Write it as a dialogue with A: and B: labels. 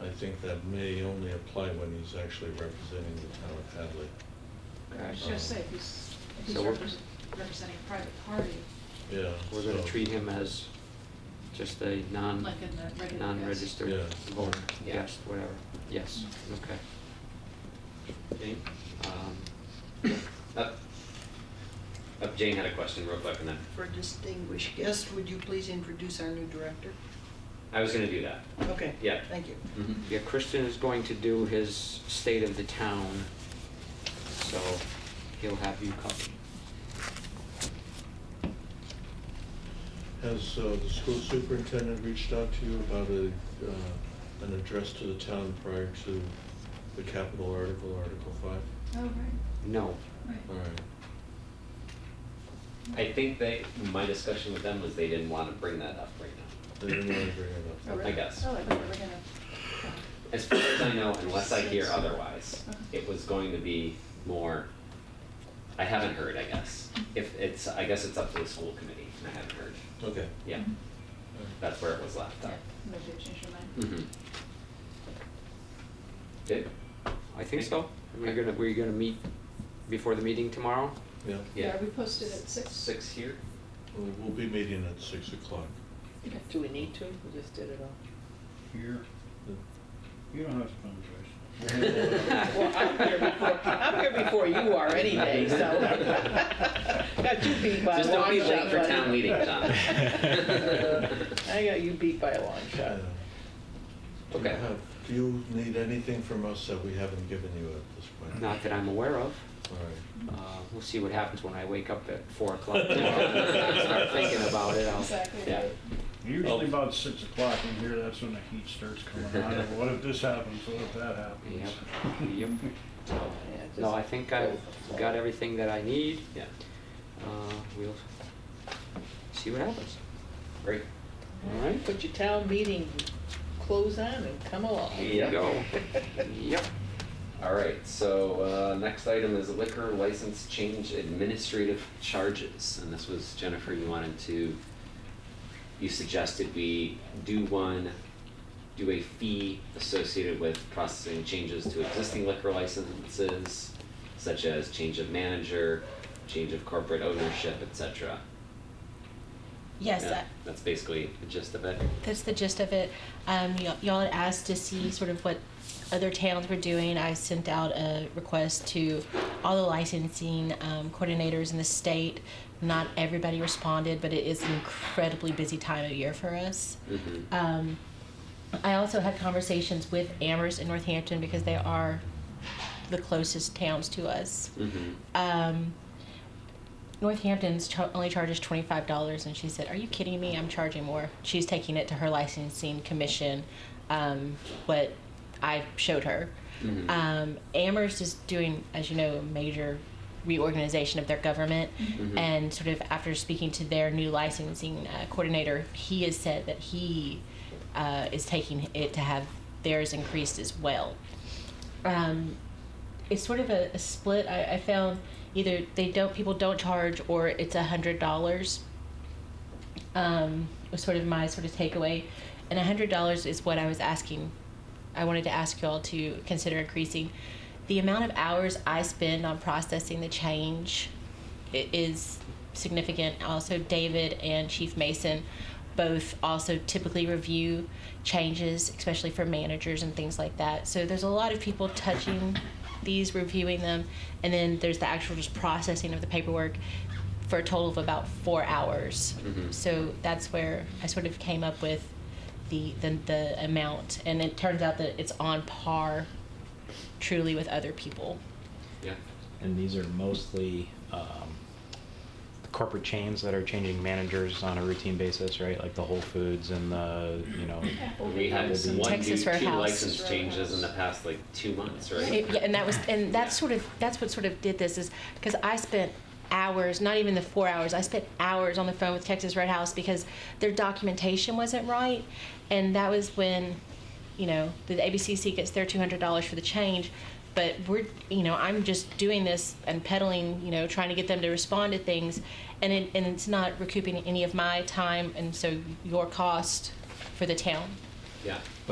A: I think that may only apply when he's actually representing the town of Hadley.
B: I was gonna say, if he's, if he's
C: So we're-
B: represent- representing a private party,
A: Yeah.
C: We're gonna
A: so-
C: treat him as just a non,
B: like in the regular.
C: non-registered
A: Yeah.
C: voter,
B: Yeah.
C: guest, whatever, yes, okay.
D: Jane?
C: Um,
D: Uh, uh, Jane had a question real quick and then,
E: For distinguished guest, would you please introduce our new Oh. director?
D: I was gonna do that. Mm-hmm.
E: Okay.
D: Yeah.
E: Thank you.
C: Yeah, Christian is going to do his state of the town, so he'll have you covered.
A: Has uh, the school superintendent reached out to you about a, uh, an address to the town prior to the capital article, Article Five?
B: Oh, right,
C: No,
A: All
B: right.
A: right,
D: Mm, I think they, my discussion with them was they didn't wanna bring that up right now.
A: they didn't want to bring it
B: Oh,
A: up.
B: really?
D: guess.
B: Oh, I thought we were gonna.
D: As far as I know, unless I hear otherwise,
B: Uh-huh.
D: it was going to be more, I haven't heard, I guess. If it's, I guess it's up to the school committee, and I haven't heard.
A: Okay.
D: Yeah,
E: Mm-hmm.
B: Mhm.
D: that's where it was left
B: Yeah,
D: up.
B: maybe they changed their mind.
D: Mm-hmm.
C: mhm,
D: Did?
C: I think so. We're gonna, we're gonna meet before the meeting tomorrow?
A: Yeah,
D: Yeah.
B: we posted at six.
D: Six here?
A: Well, we'll be meeting at six o'clock.
B: Okay.
F: Do we need to? We just did it all.
G: Here, you don't have to come to us.
F: Well, I'm here before, I'm here before you are any day, so. Got you beat by a
D: Just don't
F: long
D: be
F: shot,
D: late for
F: buddy.
D: town meeting, John.
F: I got you beat by a long
A: Yeah.
F: shot.
A: Do you
D: Okay.
A: have- Do you need anything from us that we haven't given you at this point?
C: Not that I'm aware of.
A: All right.
C: Uh, we'll see what happens when I wake up at four o'clock tomorrow. and Start thinking about it, I'll,
B: Exactly.
D: Yeah.
B: right.
G: Usually about six o'clock in here, that's when the heat starts coming on, and what if this happens, what if that happens?
C: yep, yep. So,
F: Yeah, just-
C: No, I think I've got everything that I need.
D: Yeah,
C: Uh, we'll see what happens.
D: great.
C: All right?
F: Put your town meeting clothes on and come along.
C: Here
D: Yep.
C: you go. Yep.
D: All right, so uh, next item is liquor license change administrative charges. And this was, Jennifer, you wanted to, you suggested we do one, do a fee associated with processing changes to existing liquor licenses, such as change of manager, change of corporate ownership, et cetera.
H: Yes,
D: Yeah,
H: uh,
D: That's basically the gist of it.
H: that's the gist of it. Um, y'all, y'all had asked to see sort of what other towns were doing. I sent out a request to all the licensing um, coordinators in the state. Not everybody responded, but it is an incredibly busy time of year for us.
D: Mhm.
H: Um, I also had conversations with Amherst and Northampton because they are the closest towns to us.
D: Mhm.
H: um, Northampton's char- only charges twenty five dollars, and she said, "Are you kidding me? I'm charging more." She's taking it to her licensing commission, um, what I showed her.
D: Mhm.
H: Um, Amherst is doing, as you know, a major reorganization of their government,
D: Mhm.
H: and sort of after speaking to their new licensing uh, coordinator, he has said that he uh, is taking it to have theirs increased as well. Um, it's sort of a, a split. I, I found either they don't people don't charge or it's a hundred dollars. Um, was sort of my sort of takeaway, and a hundred dollars is what I was asking. I wanted to ask y'all to consider increasing the amount of hours I spend on processing the change. i- is significant. Also, David and Chief Mason both also typically review changes, especially for managers and things like that. So there's a lot of people touching these, reviewing them, and then there's the actual just processing of the paperwork for a total of about four hours.
D: Mhm.
H: So that's where I sort of came up with the, the the amount, and it turns out that it's on par, truly, with other people.
D: Yeah.
I: and these are mostly um, corporate chains that are changing managers on a routine basis, right? Like the Whole Foods and the, you know,
D: We had
I: Texas
D: one, do- two
H: Roadhouse.
D: license changes in the past like two months, right?
H: It- yeah, and that was, and that's sort of, that's what sort of did this is, because I spent hours, not even the four hours, I spent hours on the phone with Texas Red House because their documentation wasn't right. And that was when, you know, the ABCC gets their $200 for the change. But we're, you know, I'm just doing this and peddling, you know, trying to get them to respond to things. And, it, and it's not recouping any of my time and so your cost for the town.
D: Yeah.